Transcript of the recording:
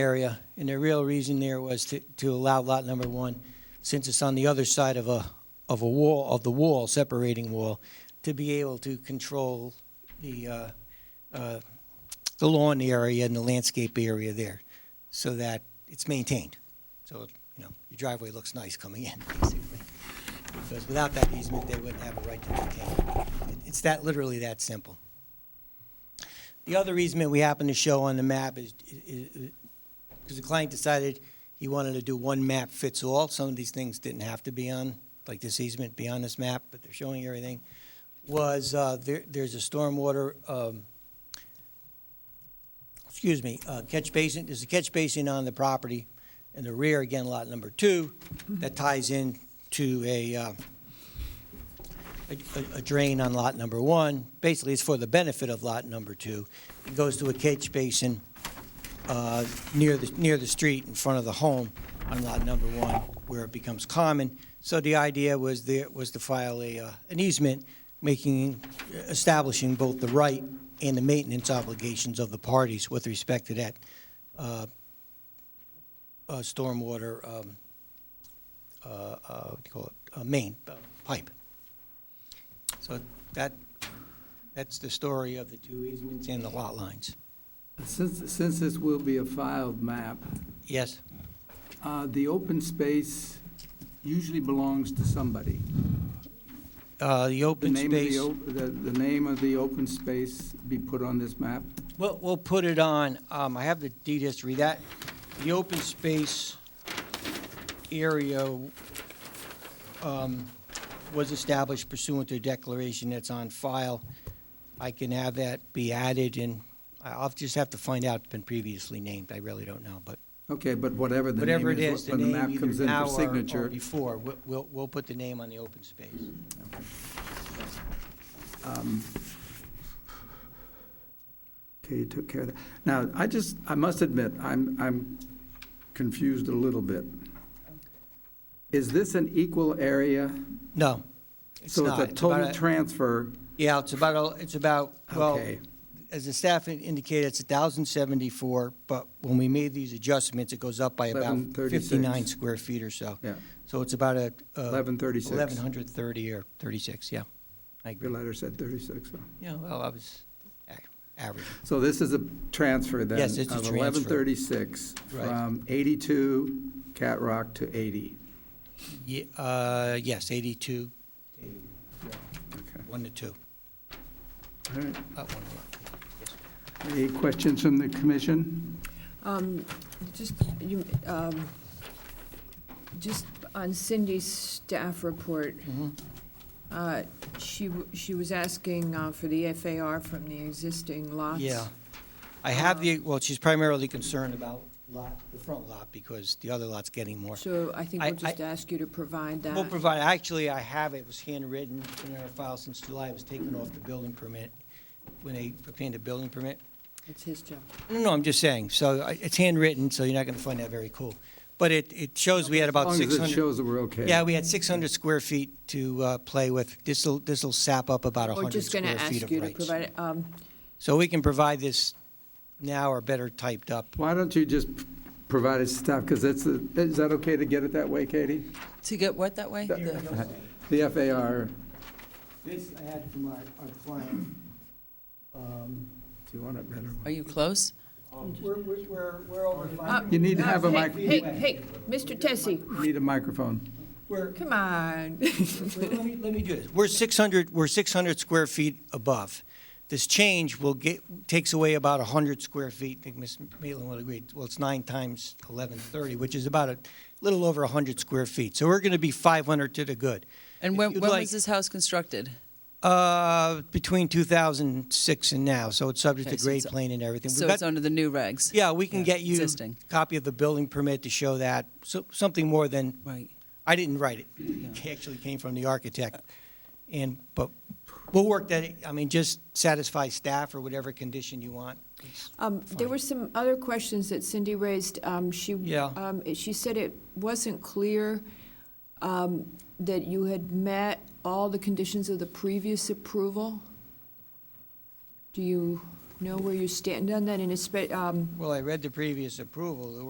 area, and the real reason there was to, to allow lot number one, since it's on the other side of a, of a wall, of the wall, separating wall, to be able to control the, uh, uh, the lawn area and the landscape area there, so that it's maintained. So, you know, your driveway looks nice coming in, basically. Because without that easement, they wouldn't have a right to maintain it. It- It's that, literally that simple. The other easement we happen to show on the map is, is, because the client decided he wanted to do one map fits all. Some of these things didn't have to be on, like this easement be on this map, but they're showing everything. Was, uh, there, there's a stormwater, um, excuse me, uh, catch basin, there's a catch basin on the property in the rear, again, lot number two, that ties in to a, uh, a- a drain on lot number one. Basically, it's for the benefit of lot number two. It goes to a catch basin uh, near the, near the street in front of the home on lot number one, where it becomes common. So the idea was there, was to file a, uh, an easement, making, uh, establishing both the right and the maintenance obligations of the parties with respect to that uh, uh, stormwater, um, uh, uh, what do you call it, Uh, main uh, pipe. So that, that's the story of the two easements and the lot lines. Since, since this will be a filed map, Yes? uh, the open space usually belongs to somebody. Uh, The The open name of the space, o- The, the name of the open space be put on this map? we'll, we'll put it on, um, I have the deed history, that, the open space area um, was established pursuant to a declaration that's on file. I can have that be added, and I- I'll just have to find out, it's been previously named, I really don't know, but Okay, but whatever the name whatever it is, is, the when the name map comes either in now for or- or signature. before, we'll- we'll, we'll put the name on the open space. um, Okay, you took care of that. Now, I just, I must admit, I'm, I'm confused a little bit. Is this an equal area? No, it's So not. it's a It's about total transfer, Yeah, it's about, it's about, well, okay. as the staff in- indicated, it's 1,074, but when we made these adjustments, it goes up by about 1136. 59 square feet or so. Yeah. So it's about a. uh, 1136. 1,130 or 36, yeah. I Your agree. letter said 36, so. Yeah, well, I was a- average. So this is a transfer then? Yes, it's a Of transfer. 1136 Right. from 82 Cat Rock to 80. Ye- uh, Yes, 82, Okay. 1 to 2. All right. Not one to one. Any questions from the commission? Um, Just, you, um, just on Cindy's staff report, Mm-hmm. uh, she, w- she was asking uh, for the FAR from the existing lots. Yeah. I have the, well, she's primarily concerned about lot, the front lot, because the other lot's getting more. So I think I- we'll just ask you to provide that. We'll provide, actually, I have it, it was handwritten in our file since July, it was taken off the building permit, when they obtained a building permit. It's his job. No, no, I'm just saying, so I- it's handwritten, so you're not gonna find that very cool. But it, it shows we had about As long six as it hundred. shows that we're okay. Yeah, we had six hundred square feet to, uh, play with. This'll, this'll sap up about We're hundred just going to square feet ask of you to rights. provide, it. Um, So we can provide this now or better typed up. Why don't you just provide us stuff, because that's, the- is that okay to get it that way, Katie? To get what that way? The- The FAR, This I had from our, our client. Um, do you want it better? Are you close? We're, we're- we're, we're over uh, five. You need to uh, have a hey, mic- Hey, hey, Mr. Tessie, Need a microphone. We're, come on. Well, Let me, let me do this. We're 600, we're 600 square feet above. This change will get, takes away about 100 square feet. I think Ms. Maitland will agree. Well, it's nine times 1130, which is about a little over 100 square feet. So we're going to be 500 to the good. And If when, you'd when like- was this house constructed? Uh, between 2006 and now, so it's subject to Okay, so grade it's- plane and everything. We've So got- it's under the new regs? Yeah, we can yeah, get you a existing. copy of the building permit to show that, so, something more than Right. I didn't write it. It actually came from the architect. And, but we'll work that, I mean, just satisfy staff or whatever condition you want. Um, There were some other questions that Cindy raised. Um, She, Yeah. um, it- she said it wasn't clear um, that you had met all the conditions of the previous approval. Do you, know where you stand on that, and espe- um, um, Well, I read the previous approval. There